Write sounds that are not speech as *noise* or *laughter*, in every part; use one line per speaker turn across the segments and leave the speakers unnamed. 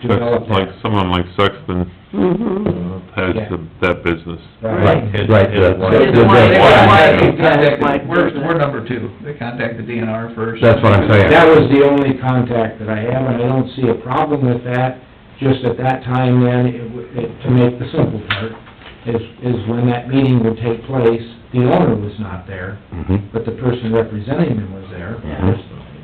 Sexton,
develop
like,
that.
someone like Sexton
Mm-hmm.
has
Yeah.
the- that business.
Right.
Right, the-
It's one,
the-
it's one.
They contacted,
Like-
we're, we're number two, they contact the DNR first.
That's what I'm saying.
That was the only contact that I have, and I don't see a problem with that, just at that time then, it w- it- to make the simple part, is, is when that meeting would take place, the owner was not there,
Mhm.
but the person representing them was there.
Mhm.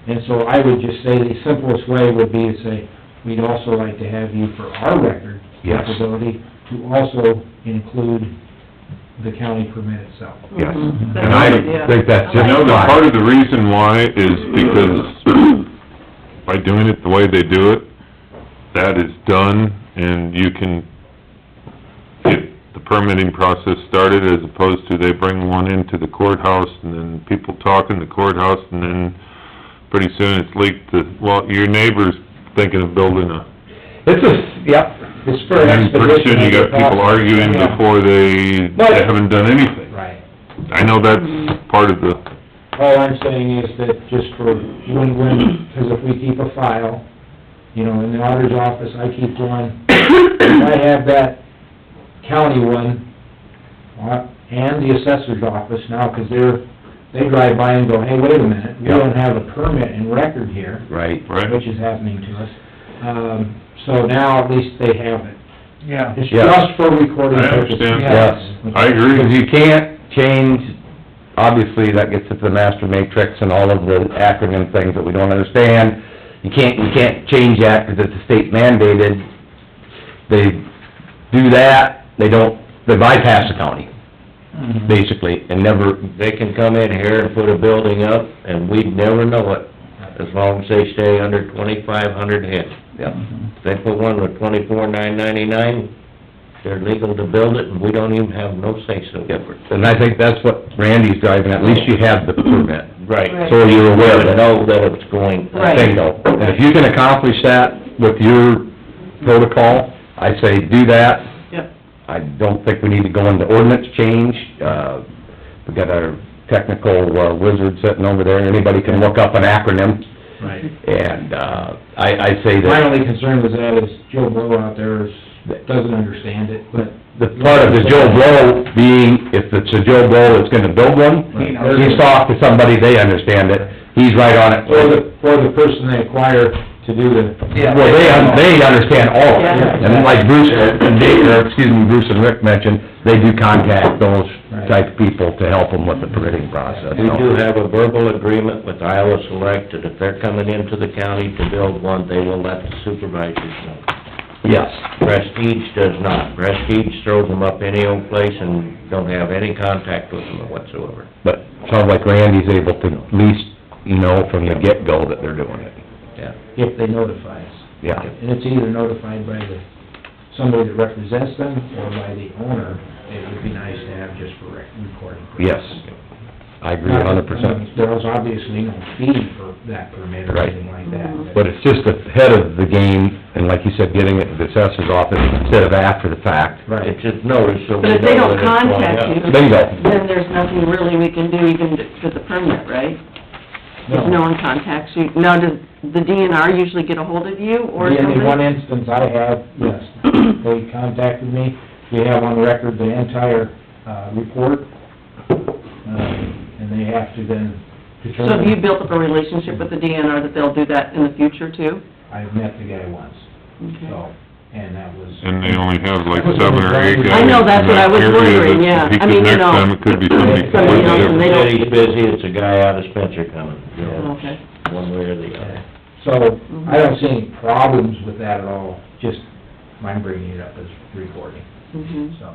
And so I would just say the simplest way would be to say, we'd also like to have you for our record
Yes.
capability to also include the county permit itself.
Yes.
Mhm.
And I think that's
I
just
know
No, the
fine.
part of the reason why is because by doing it the way they do it, that is done, and you can get the permitting process started, as opposed to they bring one into the courthouse, and then people talk in the courthouse, and then pretty soon it's leaked to, well, your neighbor's thinking of building a...
It's a, yep,
It's for
And then
expedition.
pretty soon you got people arguing
Yeah.
before they, they haven't done anything.
Right. Mm-hmm.
I know that's part of the...
All I'm saying is that just for win-win, because if we keep a file, you know, in the auditor's office, I keep one. If I have that county one, uh, and the assessor's office now, because they're, they drive by and go, hey, wait a minute, we
Yeah.
don't have a permit in record here,
right.
Right.
which is happening to us. Um, so now at least they have it.
Yeah.
It's
Yeah.
just for recording
I
purposes.
understand.
Yes.
I agree.
Because you can't change, obviously, that gets into the master matrix and all of the acronym things that we don't understand. You can't, you can't change that because it's a state mandated. They do that, they don't, they bypass the county, basically, and never,
They can come in here and put a building up, and we'd never know it, as long as they stay under twenty-five hundred head.
yeah,
Mm-hmm.
If they put one with twenty-four nine ninety-nine, they're legal to build it, and we don't even have no say-so.
yeah. And I think that's what Randy's driving, at least you have the permit,
Right.
so you're aware of
But
it.
know that it's going.
Right.
bingo. And if you can accomplish that with your protocol, I say do that.
Yep.
I don't think we need to go into ordinance change. Uh, we got our technical uh, wizard sitting over there. Anybody can look up an acronym.
Right.
And, uh, I, I say
My
that
only concern with that is Joe Blow out there is, doesn't understand it, but
the part of the Joe Blow being, if it's a Joe Blow that's gonna build one,
He knows.
he's talked to somebody, they understand it. He's right on it.
or the, or the person they acquire to do the,
Yeah.
Well, they, un- they understand all of it,
Yeah.
and then like Bruce uh, and Dave, or excuse me, Bruce and Rick mentioned, they do contact those type of people to help them with the permitting process,
We
so.
do have a verbal agreement with Iowa Select that if they're coming into the county to build one, they will let the supervisors know.
Yes,
Prestige does not. Prestige throws them up any old place and don't have any contact with them whatsoever.
but it sounds like Randy's able to at least know from the get-go that they're doing it,
Yeah.
if they notify us.
yeah.
And it's either notified by the, somebody that represents them, or by the owner, it would be nice to have just for rec- recording.
Yes, I agree a hundred percent,
There was obviously no fee for that permit or
Right.
anything like that.
but it's just ahead of the game, and like you said, getting it to the assessor's office instead of after the fact.
Right.
It's just notice so we
But if they
know
don't
that it's going
contact
up.
you,
Bingo.
then there's nothing really we can do even to- for the permit, right? If no one contacts you, now does the DNR usually get a hold of you or
In the one
something?
instance I have,
*clears throat*
yes, they contacted me, we have on record the entire, uh, report, uh, and they have to then
So have you
determine.
built up a relationship with the DNR that they'll do that in the future too?
I've met the guy once,
Okay.
so, and that was,
And they only have like seven or eight guys.
I know, that's
in
what I
that
was
area
wondering,
that
yeah.
he
I
could-
mean, you
Next
know,
time, it could be somebody
somebody
completely
else, and they
different.
don't-
City's busy, it's a guy out of Spencer coming, you know,
Okay.
one way or the other.
so, I don't see any problems with that at all, just, mine bringing it up as recording,
Mhm.
so.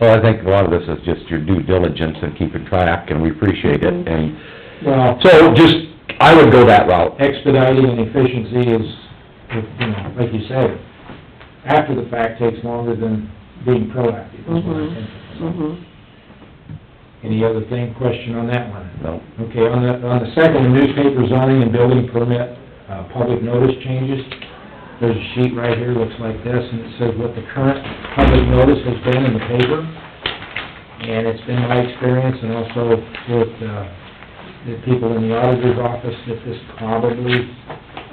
Well, I think a lot of this is just your due diligence and keeping track, and we appreciate
Mm-hmm.
it, and
Well,
So just, I would go that route.
expediting and efficiency is, you know, like you said, after the fact takes longer than being proactive, is what I'm thinking. So,
Mhm.
Any other thing, question on that one?
No.
Okay, on the, on the second, newspaper zoning and building permit, uh, public notice changes, there's a sheet right here, looks like this, and it says what the current public notice has been in the paper. And it's been my experience and also with, uh, the people in the auditor's office that this probably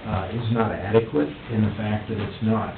uh, is not adequate in the fact that it's not